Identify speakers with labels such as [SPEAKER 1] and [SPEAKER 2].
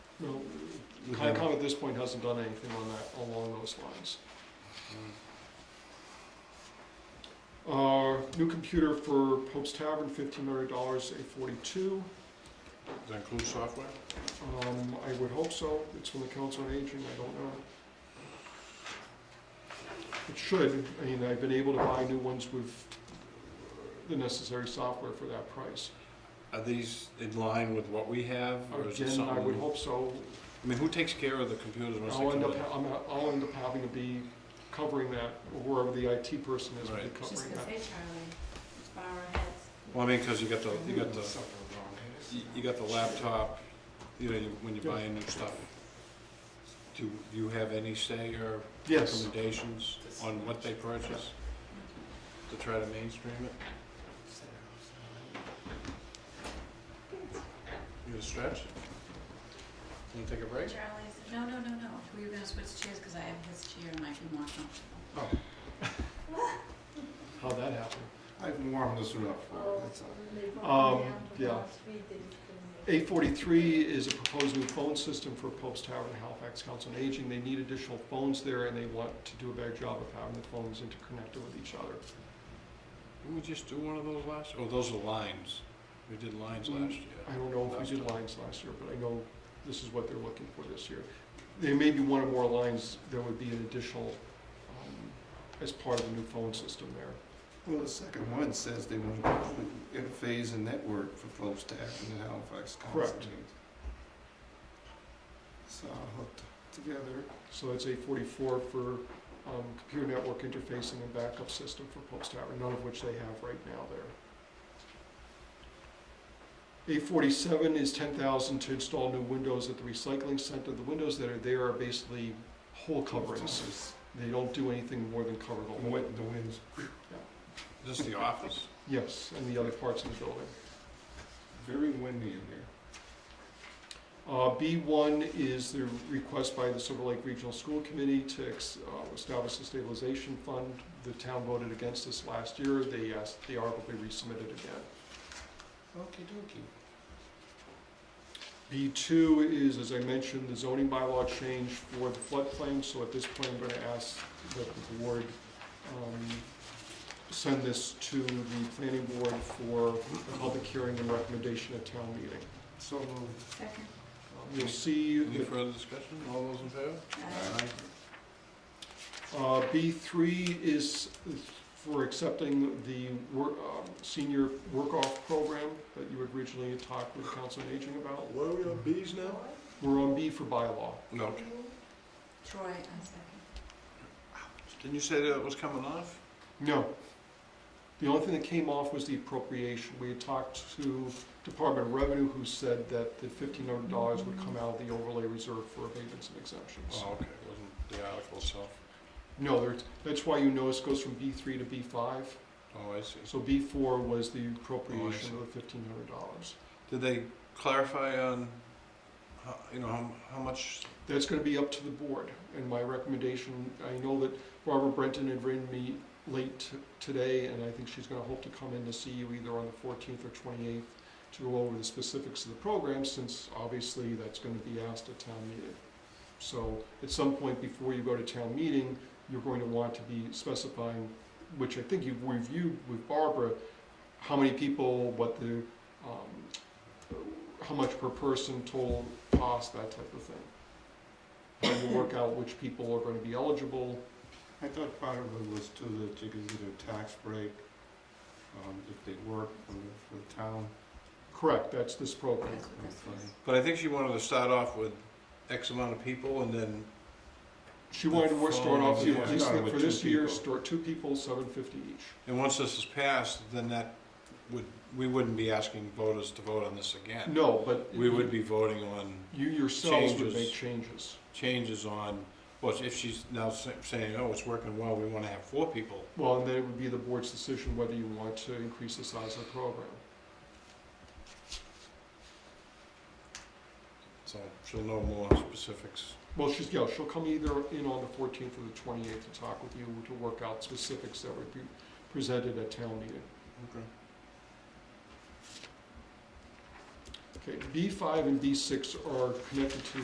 [SPEAKER 1] No,
[SPEAKER 2] We have-
[SPEAKER 1] Concom at this point hasn't done anything on that, along those lines.
[SPEAKER 3] Mm-hmm.
[SPEAKER 1] Uh, new computer for Pope's Tavern, fifteen hundred dollars, eight forty-two.
[SPEAKER 2] Does that include software?
[SPEAKER 1] Um, I would hope so, it's from the Council on Aging, I don't know. It should, I mean, I've been able to buy new ones with the necessary software for that price.
[SPEAKER 2] Are these in line with what we have, or is it
[SPEAKER 1] Again, I would
[SPEAKER 2] something?
[SPEAKER 1] hope so,
[SPEAKER 2] I mean, who takes care of the computers once they
[SPEAKER 1] I'll
[SPEAKER 2] come
[SPEAKER 1] end up,
[SPEAKER 2] in?
[SPEAKER 1] ha- I'm, a- I'll end up having to be covering that, or whoever the IT person is will be
[SPEAKER 2] Right.
[SPEAKER 4] Just
[SPEAKER 1] covering
[SPEAKER 4] gonna
[SPEAKER 1] that.
[SPEAKER 4] say, Charlie, let's bow our heads.
[SPEAKER 2] Well, I mean, because you got the, you got the, you- you got the laptop, you know, you- when you buy new stuff. Do you have any say or
[SPEAKER 1] Yes,
[SPEAKER 2] recommendations on what they purchase to try to mainstream it? You gonna stretch? Wanna take a break?
[SPEAKER 4] Charlie's, no, no, no, no, we were gonna switch chairs, cause I have his chair and might be more comfortable.
[SPEAKER 1] how'd that happen?
[SPEAKER 3] I've warmed this one up for, it, that's all.
[SPEAKER 1] Um, yeah. Eight forty-three is a proposed new phone system for Pope's Tower and Halifax Council on Aging. They need additional phones there, and they want to do a better job of having the phones interconnected with each other.
[SPEAKER 2] Didn't we just do one of those last, oh, those are lines. We did lines
[SPEAKER 1] Mm.
[SPEAKER 2] last year.
[SPEAKER 1] I don't know if we did lines last year, but I know this is what they're looking for this year. There may be one or more lines, there would be an additional, um, as part of the new phone system there.
[SPEAKER 3] Well, the second one says they want to interface and network for folks to act in Halifax
[SPEAKER 1] Correct.
[SPEAKER 3] constantly. So I hooked together.
[SPEAKER 1] uh, So that's eight forty-four for um, computer network interfacing and backup system for Pope's Tower, none of which they have right now there. Eight forty-seven is ten thousand to install new windows at the recycling center. The windows that are there are basically hole coverings. They don't do anything more than cover the
[SPEAKER 3] The
[SPEAKER 1] hole.
[SPEAKER 3] wind, the winds.
[SPEAKER 2] Is this the office?
[SPEAKER 1] Yes, and the other parts of the building.
[SPEAKER 3] Very windy in here.
[SPEAKER 1] Uh, B1 is the request by the Silver Lake Regional School Committee to ex- uh, establish a stabilization fund. The town voted against this last year. They asked, the article be resubmitted again.
[SPEAKER 3] Okey dokey.
[SPEAKER 1] B2 is, as I mentioned, the zoning bylaw change for the floodplain, so at this point, I'm gonna ask that the board um, send this to the planning board for a public hearing and recommendation at town meeting.
[SPEAKER 3] So moved.
[SPEAKER 4] Second.
[SPEAKER 1] Um, You'll see
[SPEAKER 2] Any
[SPEAKER 1] that
[SPEAKER 2] further discussion? All those in favor?
[SPEAKER 4] Uh,
[SPEAKER 1] Uh, B3 is for accepting the wor- um, senior work-off program that you had originally talked with Council on Aging about.
[SPEAKER 2] What are we on Bs now?
[SPEAKER 1] We're on B for bylaw.
[SPEAKER 2] No.
[SPEAKER 4] Troy, I second.
[SPEAKER 2] Didn't you say that it was coming off?
[SPEAKER 1] No. The only thing that came off was the appropriation. We had talked to Department of Revenue, who said that the $1,500 would come out of the overlay reserve for abatements and exemptions.
[SPEAKER 2] Oh, okay, it wasn't the article itself.
[SPEAKER 1] No, there's- that's why you notice it goes from B3 to B5.
[SPEAKER 2] Oh, I see.
[SPEAKER 1] So B4 was the appropriation of the $1,500.
[SPEAKER 2] Did they clarify on, how- you know, how, how much?
[SPEAKER 1] That's gonna be up to the board, and my recommendation, I know that Barbara Brenton had written me late t- today, and I think she's gonna hope to come in to see you either on the fourteenth or twenty-eighth to go over the specifics of the program, since obviously that's gonna be asked at town meeting. So, at some point before you go to town meeting, you're going to want to be specifying, which I think you've reviewed with Barbara, how many people, what the, um, how much per person total cost, that type of thing trying to work out which people are gonna be eligible.
[SPEAKER 3] I thought part of it was too that you could get a tax break, um, if they work for the, for the town.
[SPEAKER 1] Correct, that's this program.
[SPEAKER 4] That's what this was.
[SPEAKER 2] But I think she wanted to start off with X amount of people and then,
[SPEAKER 1] She wanted to work, start off,
[SPEAKER 2] Yeah,
[SPEAKER 1] at least
[SPEAKER 3] starting
[SPEAKER 1] for
[SPEAKER 3] with
[SPEAKER 1] this
[SPEAKER 3] two
[SPEAKER 1] year,
[SPEAKER 3] people.
[SPEAKER 1] start two people, seven fifty each.
[SPEAKER 2] and once this is passed, then that would, we wouldn't be asking voters to vote on this again.
[SPEAKER 1] No, but
[SPEAKER 2] We would be voting on
[SPEAKER 1] you yourselves would
[SPEAKER 2] Changes.
[SPEAKER 1] make changes.
[SPEAKER 2] changes on, well, if she's now sa- saying, oh, it's working well, we want to have four people.
[SPEAKER 1] Well, and then it would be the board's decision whether you want to increase the size of the program.
[SPEAKER 2] So she'll know more specifics.
[SPEAKER 1] Well, she's, yeah, she'll come either in on the fourteenth or the twenty-eighth to talk with you to work out specifics that would be presented at town meeting.
[SPEAKER 2] Okay.
[SPEAKER 1] Okay, B five and B six are connected to